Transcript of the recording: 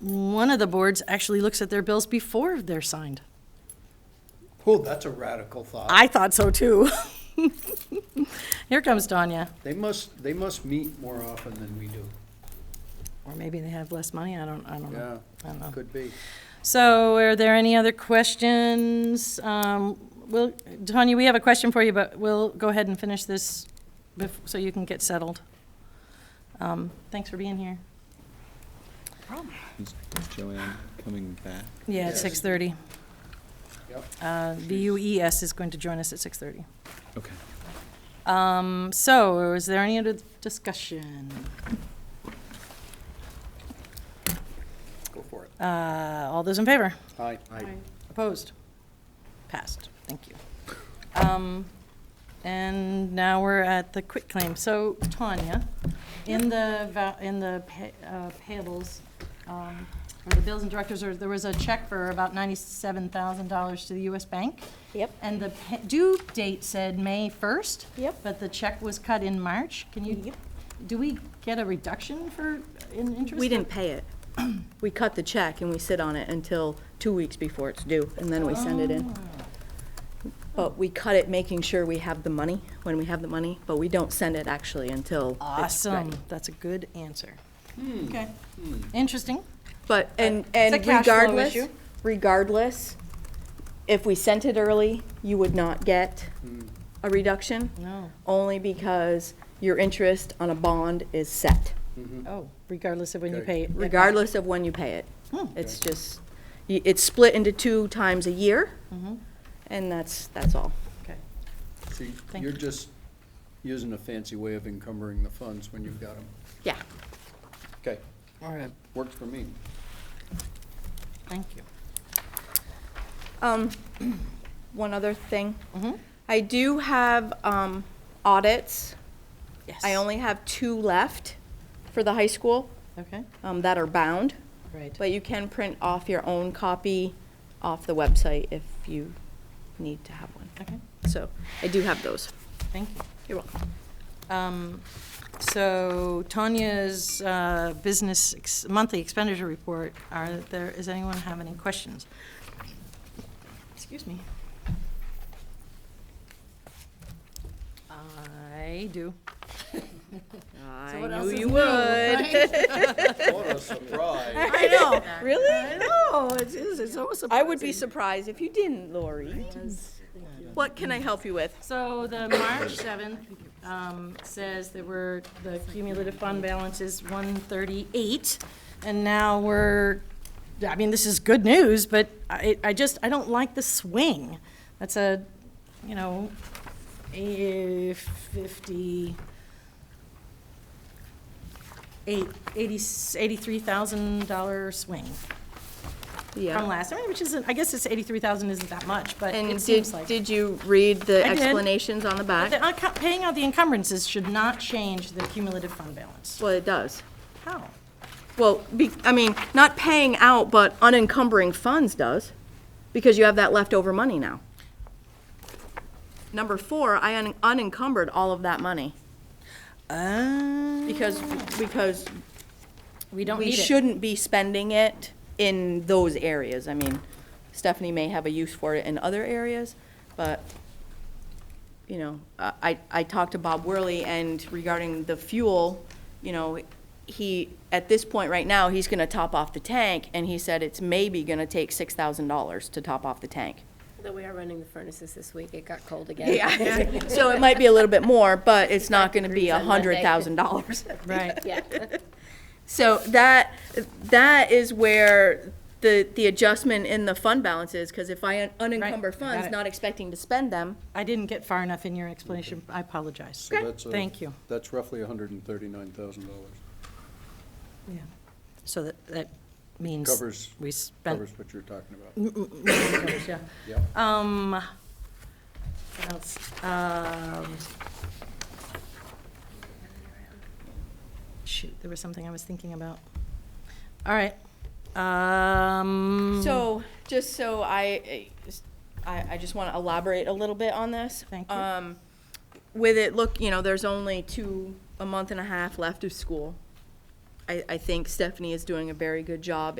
one of the boards actually looks at their bills before they're signed. Oh, that's a radical thought. I thought so too. Here comes Tanya. They must, they must meet more often than we do. Or maybe they have less money, I don't, I don't know. Yeah, I don't know. could be. So are there any other questions? Um, Will, Tanya, we have a question for you, but we'll go ahead and finish this bef- so you can get settled. Um, Thanks for being here. Is is Joanne coming back? Yeah, at Yes. 6:30. Yep. Uh, The UES is going to join us at 6:30. Okay. Um, So is there any other discussion? Go for it. Uh, All those in favor? Aye. Opposed? Passed. Thank you. Um, And now we're at the quit claim. So Tanya, in the, va- in the pay- uh, payables, um, or the bills and directors, or there was a check for about $97,000 to the US Bank. Yep. And the pa- due date said May 1st. Yep. But the check was cut in March. Can you, Yep. do we get a reduction for, in interest? We didn't pay it. We cut the check and we sit on it until two weeks before it's due, and then we send it in. But we cut it making sure we have the money, when we have the money, but we don't send it actually until it's Awesome. ready. That's a good answer. Okay. Interesting. But, and, a and cash flow regardless, issue. regardless, if we sent it early, you would not get a reduction, No. only because your interest on a bond is set, Oh, regardless of when you pay. it back. regardless of when you pay it. Hmm. It's just, y- it's split into two times a year, and that's, that's all. Mm-hmm. Okay. So you- Thank you're you. just using a fancy way of encumbering the funds when you've got them. Yeah. Okay, All right. works for me. Thank you. Um, one other thing. I do have, um, audits. Yes. I only have two left for the high school, Okay, um, that are bound. right. But you can print off your own copy off the website if you need to have one. Okay, So I do have those. thank you. You're welcome. Um, So Tanya's uh, business ex- monthly expenditure report, are there, is anyone have any questions? Excuse me. I do. I So what else is new, What a surprise. I know. Really? I know, it is, it's always I would be surprised if you didn't, Lori. What can I help you with? So the March seventh, um, says that we're, the cumulative fund balance is one thirty-eight, and now we're, I mean, this is good news, but I, I just, I don't like the swing. That's a, you know, a fifty, eight, eighty, eighty-three thousand dollar swing from last, I mean, which isn't, I guess it's eighty-three thousand isn't that much, but it And seems did, like. did you read the I did. explanations on the back? The unco- Paying out the encumbrances should not change the cumulative fund balance. Well, it does. How? Well, be, I mean, not paying out, but unencumbering funds does, because you have that leftover money now. Number four, I un- unencumbered all of that money, because, because We don't we need it. shouldn't be spending it in those areas. I mean, Stephanie may have a use for it in other areas, but, you know, I, I- I talked to Bob Worley and regarding the fuel, you know, he, at this point right now, he's gonna top off the tank, and he said it's maybe gonna take six thousand dollars to top off the tank. Though we are running the furnaces this week, it got cold again. Yeah. So it might be a little bit more, but it's not gonna be degrees a on Monday. hundred thousand dollars. Right. Yeah. So that, that is where the, the adjustment in the fund balance is, because if I Right, I unencumber got funds, it. not expecting to spend them, I didn't get far enough in your explanation. I apologize. So that's a- Thank you. That's roughly hundred and thirty-nine thousand dollars. Yeah. So that, that means. Covers, We spent. covers what you're talking about. Covers, yeah. Yep. Um, what else? Um, shoot, there was something I was thinking about. All right. Um. So, just so I, I, I just want to elaborate a little bit on this. Thank you. Um, With it, look, you know, there's only two, a month and a half left of school. I, I think Stephanie is doing a very good job